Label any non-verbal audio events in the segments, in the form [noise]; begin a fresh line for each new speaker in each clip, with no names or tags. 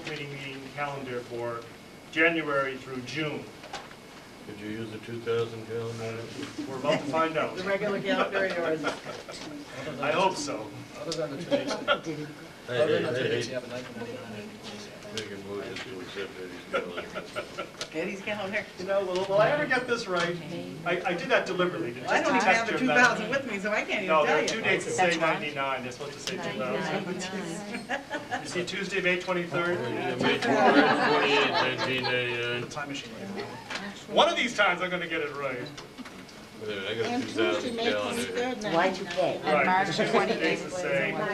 committee meeting calendar for January through June.
Could you use the two thousand gallon one?
We're about to find out.
The regular calendar and yours.
Other than-
I hope so.
Other than [laughs] the two days,
Hey,
other
hey,
than the two
hey,
days
hey,
you have a night committee on it.
make a motion to accept Eddie's
[laughs]
calendar.
Eddie's calendar.
You know, will, will I ever get this right? I, I did that deliberately to just
I don't even
test
have a
your
two
memory.
thousand with me, so I can't even
No, there
tell
are two
you.
dates that say
That's wrong.
ninety-nine, they're supposed to say two thousand.
Ninety-nine.
You see Tuesday, May twenty-third?
May twenty-eighth, nineteen ninety-nine.
Time machine.
One of these times I'm gonna get it right.
Wait a minute, I got a
And
two
Tuesday,
thousand
May
gallon here.
twenty-third,
Y two K.
ninety-nine.
Right.
And March
Tuesday,
twenty
dates
eighth.
that say
Okay.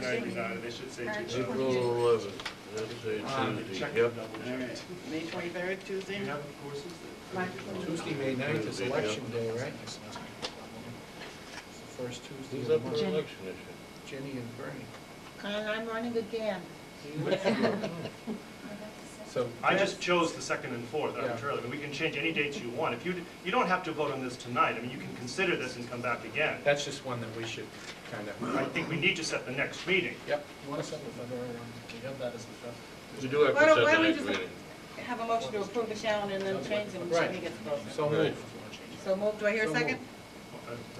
ninety-nine, they should say two thousand.
April eleventh,
Um,
let's say Tuesday,
check
yep.
and double check.
May twenty-third,
Do
Tuesday.
you have the courses?
Tuesday, May ninth is election day, right? It's the First Tuesday
Who's
of
up
the
for
month,
election this
Jenny and [laughs] Bernie.
And Uh, I'm running again.
So,
I just chose the second and fourth
Yeah.
arbitrarily, but we can change any dates you want. If you, d- you don't have to vote on this tonight, I mean, you can consider this and come back again.
That's just one that we should kind of,
I think we need to set the next meeting.
yep, you want to set the February one, you have that as the fifth.
year? We do have
Why
to
don't-
set
why
the
don't we
next
just-
meeting.
Have a motion to approve the calendar and then change them.
Right.
when we get the-
So
Right.
moved.
So move, do I hear a
So
second?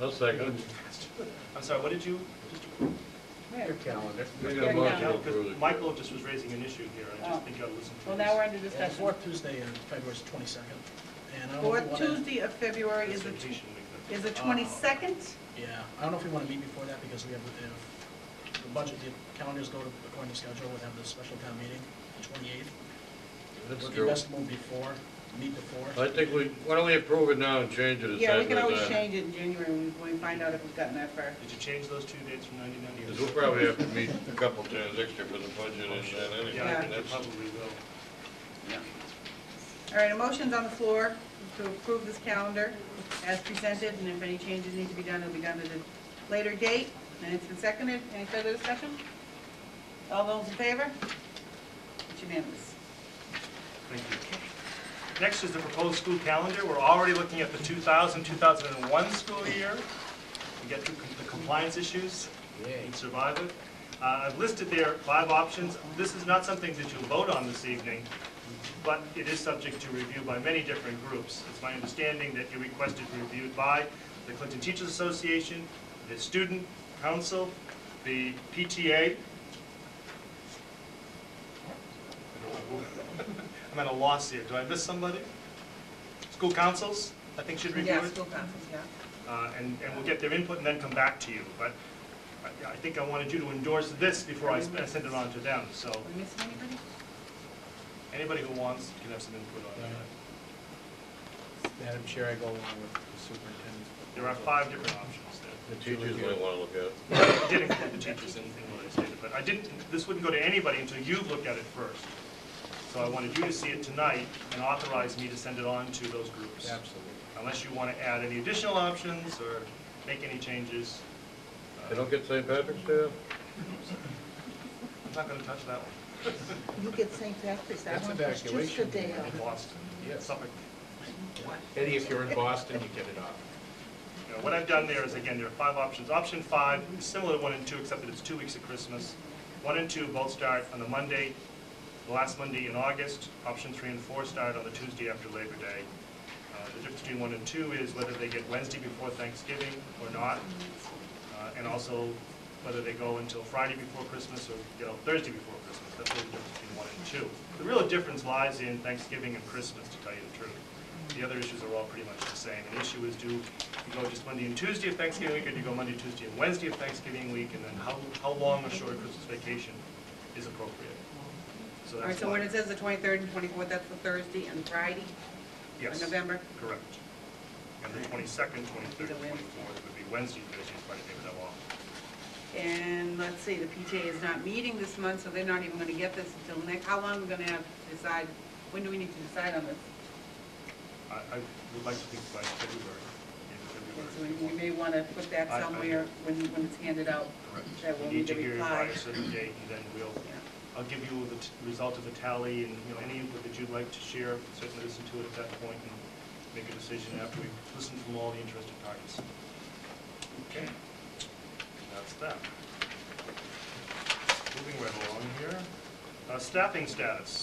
I'll second.
I'm sorry, what did you?
Your calendar.
We got a motion to approve
Because
the-
Michael just was raising an issue here, I
Oh.
just think I'll listen to
Well,
this.
now we're under
The
discussion.
fourth Tuesday in February is twenty-second, and I don't know if you
Fourth
want to.
Tuesday of February is
This
the, tw-
vacation week,
is the twenty-second.
Yeah, I don't know if we want to meet before that, because we have, if the budget, the calendars go according to schedule, we'll have the special town meeting, the twenty-eighth.
That's
Would be
true.
best to move before, meet before.
I think we, why don't we approve it now and change it uh, at the
Yeah, we
same
can always
time?
change it in January when when we find out if we've gotten that far.
Did you change those two dates from ninety-nine
Because we'll
years?
probably have to meet a couple times extra for the budget and that anyway.
Yeah, I
and
think they
that's-
probably will.
All right, a motion's on the floor to approve this calendar as presented, and if any changes need to be done, it'll be done at a later date. And it's been seconded. Any further discussion? All those in favor? It's unanimous.
Thank you. Next is the proposed school calendar. We're already looking at the 2000, 2001 school year. We get through the compliance issues. and survive it. Uh, I've listed there five options. This is not something that you'll vote on this evening, but it is subject to review by many different groups. It's my understanding that you requested review by the Clinton Teachers Association, the Student Council, the PTA. [laughs] I'm at a loss here. Do I miss somebody? School councils, I think should review it
Yeah, school conference, yeah.
uh, and, and we'll get their input and then come back to you. But I- I think I wanted you to endorse this before I s- I send it on to them, so
Are we missing anybody?
anybody who wants can have some input on that.
Madam Chair, I go along with the superintendent's.
There are five different options there.
The teachers might want to look at it.
I did include the teachers in in what I stated, but I didn't, this wouldn't go to anybody until you've looked at it first. So I wanted you to see it tonight and authorize me to send it on to those groups.
Absolutely.
Unless you want to add any additional options or make any changes. uh,
They don't get St. Patrick's Day? off?
I'm not going to touch that one.
You get St. Patrick's, I
That's
want this just a
evacuation.
day off.
in Boston,
Yes.
Suffolk.
Eddie, if you're in Boston, you get it off.
You know, What I've done there is, again, there are five options. Option five, is similar to one and two, except that it's two weeks of Christmas. One and two both start on the Monday, the last Monday in August. Option three and four start on the Tuesday after Labor Day. Uh, The difference between one and two is whether they get Wednesday before Thanksgiving or not, uh, and also whether they go until Friday before Christmas or get out Thursday before Christmas. That's really the difference between one and two. The real difference lies in Thanksgiving and Christmas, to tell you the truth. The other issues are all pretty much the same. The issue is, do you go just Monday and Tuesday of Thanksgiving week, or do you go Monday, Tuesday, and Wednesday of Thanksgiving week, and then how, how long a short Christmas vacation is appropriate? So
All right,
that's
so when
why,
it says the twenty-third and twenty-fourth, that's the Thursday and Friday of
yes,
November?
correct. And the twenty-second, twenty-third,
Either way.
twenty-fourth would be Wednesday, Thursday, Friday, they would have off.
And let's see, the PTA is not meeting this month, so they're not even gonna get this until next, how long are we gonna have to decide? When do we need to decide on this?
I, I would like to think by February, in
So we- we
February.
may wanna put that
I- I-
somewhere when, when it's handed out. that
Correct.
we'll
We need
need
to
to
hear it by a
reply.
certain date, and then we'll
Yeah.
I'll give you the t- result of the tally and, you know, any input that you'd like to share, certainly listen to it at that point and make a decision after we listen from all the interested parties. Okay. That's that. Moving right along here. Uh, Staffing status.